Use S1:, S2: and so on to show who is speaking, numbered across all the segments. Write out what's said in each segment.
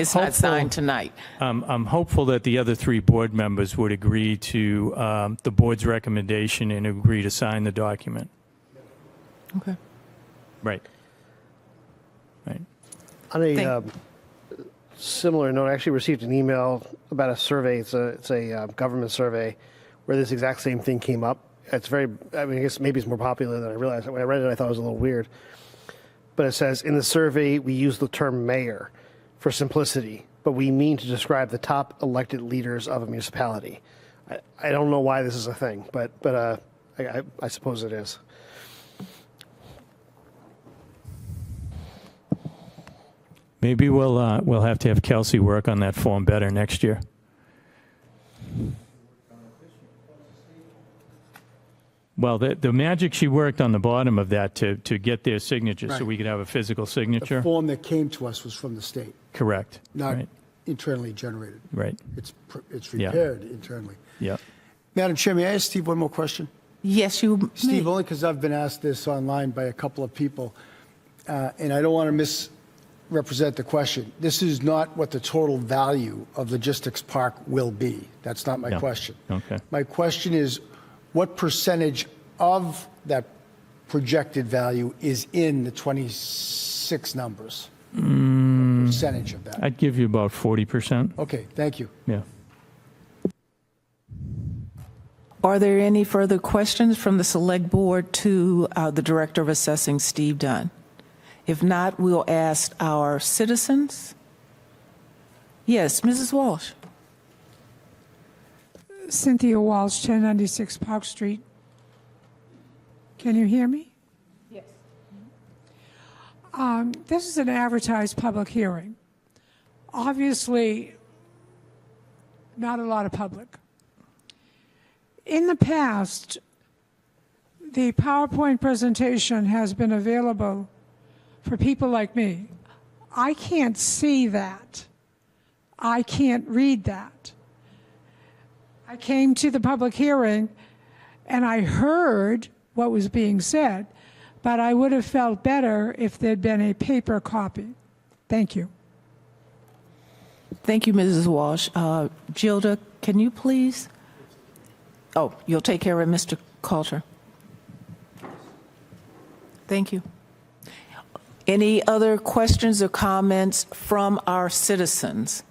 S1: It's not
S2: hopeful-
S1: signed tonight.
S2: Um, I'm hopeful that the other three board members would agree to um, the board's recommendation and agree to sign the document.
S1: Okay.
S2: Right. Right.
S3: On a
S1: Thank-
S3: um, similar note, I actually received an email about a survey. It's a it's a uh, government survey where this exact same thing came up. It's very. I mean, I guess maybe it's more popular than I realized. When I read it, I thought it was a little weird. But it says in the survey we use the term mayor for simplicity, but we mean to describe the top elected leaders of a municipality. I, I don't know why this is a thing, but but uh, I, I, I suppose it is.
S2: Maybe we'll, uh, we'll have to have Kelsey work on that form better next year. Well, the, the magic she worked on the bottom of that to, to get their signature, so
S4: Right.
S2: we could have a physical
S4: The
S2: signature.
S4: form that came to us was from the state,
S2: Correct.
S4: not
S2: Right,
S4: internally generated.
S2: right,
S4: It's, pr- it's
S2: Yeah.
S4: prepared internally.
S2: yeah.
S4: Madam Chair, may I ask Steve one more question?
S1: Yes, you. may.
S4: Steve, only because I've been asked this online by a couple of people, uh, and I don't want to misrepresent the question. This is not what the total value of Logistics Park will be. That's not my
S2: No.
S4: question.
S2: Okay.
S4: My question is, what percentage of that projected value is in the 26 numbers? What Percentage of that?
S2: I'd give you about 40%.
S4: Okay, thank you.
S2: Yeah.
S1: Are there any further questions from the Select Board to uh, the Director of Assessing, Steve Dunn? If not, we'll ask our citizens. Yes, Mrs. Walsh.
S5: Cynthia Walsh, 1096 Park Street. Can you hear me? Yes. Um, This is an advertised public hearing. Obviously, not a lot of public. In the past, the PowerPoint presentation has been available for people like me. I can't see that. I can't read that. I came to the public hearing and I heard what was being said, but I would have felt better if there'd been a paper copy. Thank you.
S1: Thank you, Mrs. Walsh. Uh, Gilda, can you please? Oh, you'll take care of Mr. Coulter. Thank you. Any other questions or comments from our citizens?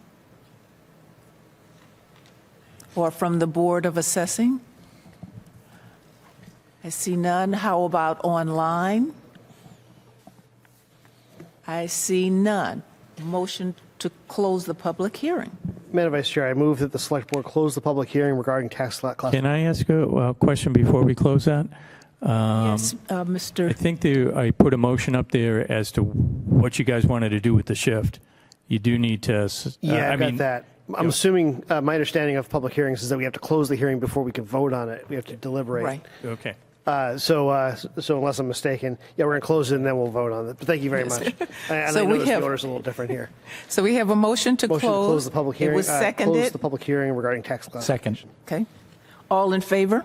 S1: Or from the Board of Assessing? I see none. How about online? I see none. Motion to close the public hearing.
S3: Madam Vice Chair, I move that the Select Board close the public hearing regarding tax lot classification.
S2: Can I ask a uh, question before we close that?
S1: Yes, uh, Mr.
S2: I think there, I put a motion up there as to what you guys wanted to do with the shift. You do need to. s- uh,
S3: Yeah,
S2: I
S3: I got
S2: mean,
S3: that. I'm assuming, uh, my understanding of public hearings is that we have to close the hearing before we can vote on it. We have to deliberate.
S1: Right.
S2: Okay.
S3: Uh, so, uh, s- so unless I'm mistaken, yeah, we're going to close it and then we'll vote on it. But thank you very much. And
S1: So
S3: I
S1: we
S3: know this
S1: have-
S3: order's a little different here.
S1: So we have a motion to close.
S3: Motion to close the public hearing.
S1: It was
S3: uh, Close
S1: seconded.
S3: the public hearing regarding tax classification.
S6: Second.
S1: Okay. All in favor?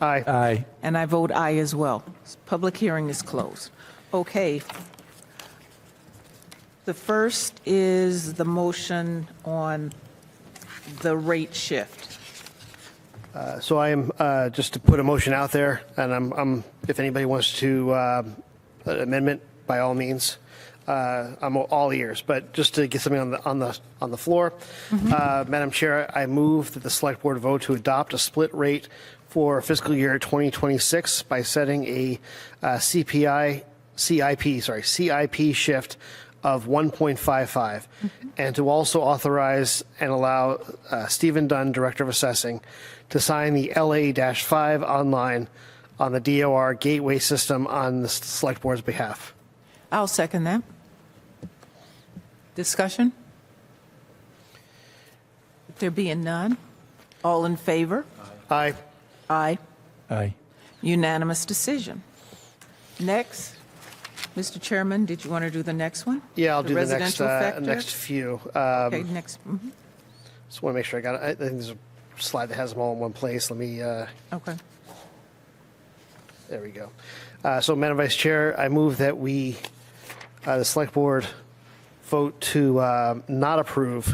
S3: Aye.
S2: Uh,
S6: Aye.
S1: And I vote aye as well. Public hearing is closed. Okay. The first is the motion on the rate shift.
S3: So I am, uh, just to put a motion out there, and I'm, I'm, if anybody wants to, uh, an amendment, by all means, uh, I'm all ears, but just to get something on the, on the, on the floor. Uh, Madam Chair, I move that the select board vote to adopt a split rate for fiscal year 2026 by setting a uh, CPI, CIP, sorry, CIP shift of 1.55, and to also authorize and allow uh, Stephen Dunn, Director of Assessing, to sign the LA-5 online on the DOR gateway system on the s- Select Board's behalf.
S1: I'll second that. Discussion? There being none? All in favor?
S3: Aye.
S1: Aye.
S6: Aye.
S1: Unanimous decision. Next, Mr. Chairman, did you want to do the next one?
S3: Yeah, I'll do the next,
S1: residential
S3: uh,
S1: factor?
S3: next few. Uh,
S1: Okay, next, mhm,
S3: Just want to make sure I got, it. I I think there's a slide that has them all in one place. Let me, uh,
S1: okay.
S3: There we go. Uh, So, Madam Vice Chair, I move that we, uh, the Select Board, vote to uh, not approve